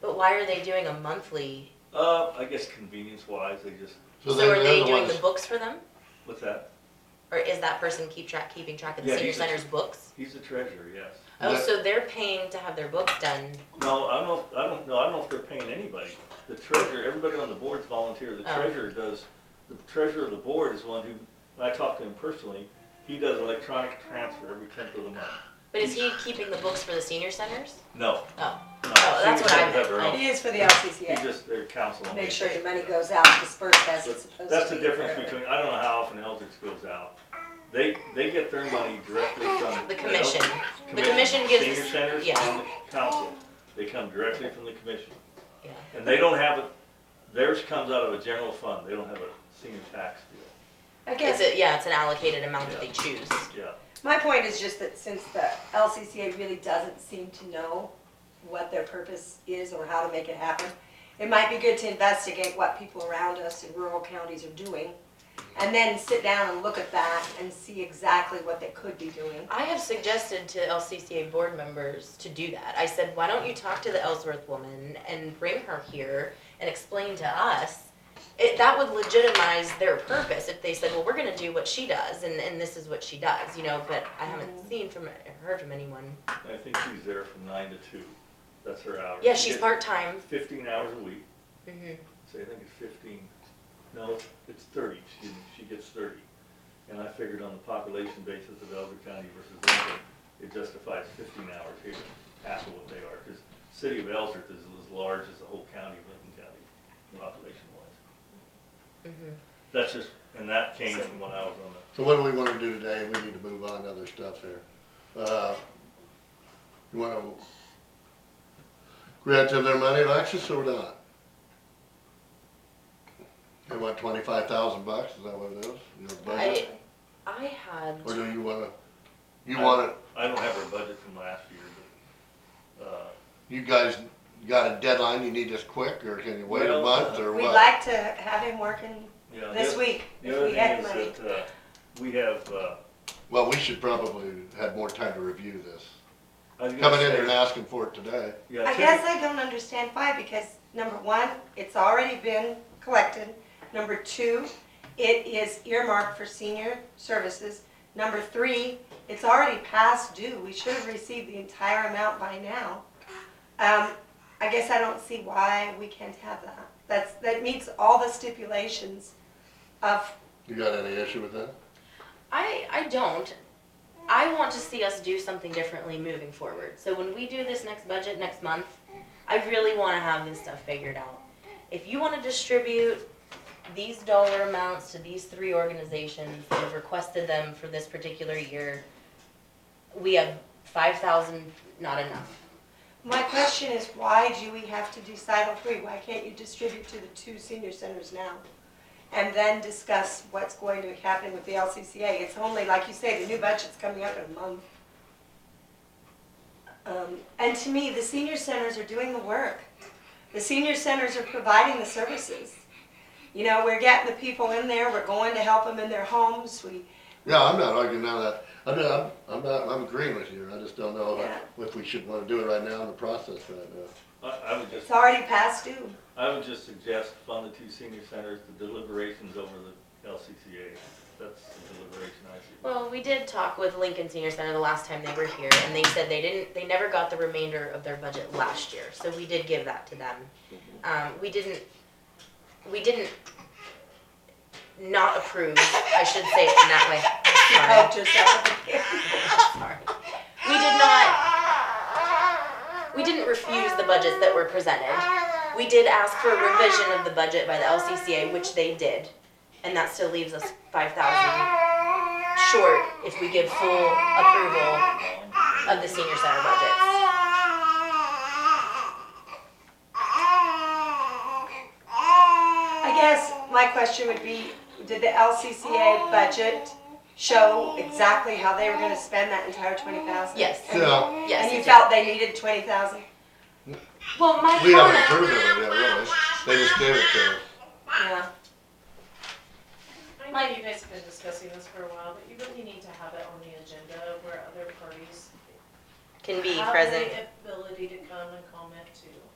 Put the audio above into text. why are they doing a monthly? Uh, I guess convenience wise, they just, So then are the they other doing the ones- books for them? what's that? Or is that person keep track, keeping track of the Yeah, senior he's a tr- center's books? He's the treasurer, yes. Oh, That- so they're paying to have their books done. No, I don't, know if- I don't, no, I don't know if they're paying anybody. The treasurer, everybody on the board's volunteer. The Oh. treasurer does, the treasurer of the board is one who, when I talk to him personally, he does electronic transfer every tenth of the month. But is he keeping the books for the senior centers? No, Oh, no. Oh, that's she what I doesn't have her meant. own. It is for the He LCCA, just, their council. on make aging. sure your money goes out, dispersed as it's supposed to be. That's the difference forever. between, I don't know how often Eldridge goes out. They, they get their money directly from. the commission. The commission commission, gives Senior us- centers yeah. and the council. They come directly from the commission. Yeah. And they don't have, it. theirs comes out of a general fund. They don't have a senior tax deal. I guess, It's a, yeah, it's an allocated amount that they choose. Yeah. my point is just that since the LCCA really doesn't seem to know what their purpose is or how to make it happen, it might be good to investigate what people around us in rural counties are doing, and then sit down and look at that and see exactly what they could be doing. I have suggested to LCCA board members to do that. I said, why don't you talk to the Ellsworth woman and bring her here and explain to us? It, that would legitimize their purpose if they said, well, we're gonna do what she does and, and this is what she does, you know, but I haven't seen from, heard from anyone. I think she's there from nine to two. That's her hours. Yeah, She she's gets part-time. Fifteen hours a week. Mhm. So I think it's fifteen, no, it's thirty, excuse me, she gets thirty. And I figured on the population basis of Elder County versus Lincoln, it justifies fifteen hours here, half of what they are, because city of Ellsworth is as large as the whole county of Lincoln County, population wise. Mm-hmm. Mhm. That's just, and that came from when I was on the, So what do we wanna do today? We need to move on to other stuff here. Uh, You wanna grant them their money, Alexis, or not? They want twenty-five thousand bucks, is that what it is? Your I, budget? I had, Or do you wanna, you I- wanna, I don't have her budget from last year, but, uh, you guys got a deadline, you need this quick, or can you wait a Well, month, or We'd what? like to have him working yeah. the this oth- week, The if other we had thing the money. is that, uh, we have, uh, Well, we should probably have more time to review this. I was gonna Coming in say, here and asking for it today. yeah, I typ- guess I don't understand why, because number one, it's already been collected. Number two, it is earmarked for senior services. Number three, it's already past due. We should have received the entire amount by now. Um, I guess I don't see why we can't have that. That's, that meets all the stipulations of, You got any issue with that? I, I don't. I want to see us do something differently moving forward. So when we do this next budget next month, I really want to have this stuff figured out. If you want to distribute these dollar amounts to these three organizations that have requested them for this particular year, we have five thousand, not enough. my question is, why do we have to do Title Three? Why can't you distribute to the two senior centers now? and then discuss what's going to happen with the LCCA. It's only, like you say, the new budget's coming up in a month. Um, And to me, the senior centers are doing the work. The senior centers are providing the services. You know, we're getting the people in there, we're going to help them in their homes, we, Yeah, I'm not arguing now that, I'm not, I'm not, I'm agreeing with you, I just don't know Yeah. if- if we should wanna do it right now in the process right now. I, I would just it's already past due. I would just suggest fund the two senior centers, the deliberations over the LCCA. That's the deliberation I see. Well, we did talk with Lincoln Senior Center the last time they were here, and they said they didn't, they never got the remainder of their budget last year, so we did give that to them. Um, we didn't, we didn't not approve, I should say it in that way, You sorry. helped yourself. We did not, we didn't refuse the budgets that were presented. We did ask for a revision of the budget by the LCCA, which they did, and that still leaves us five thousand short if we give full approval of the senior center budgets. I guess my question would be, did the LCCA budget show exactly how they were gonna spend that entire twenty thousand? Yes. Yeah, Yes. it And you did. felt they needed twenty thousand? Well, my we haven't comment. approved of it yet, really, they just gave it to us. Yeah. I know you guys have been discussing this for a while, but you really need to have it on the agenda where other parties Can be have present. the ability to come and comment too.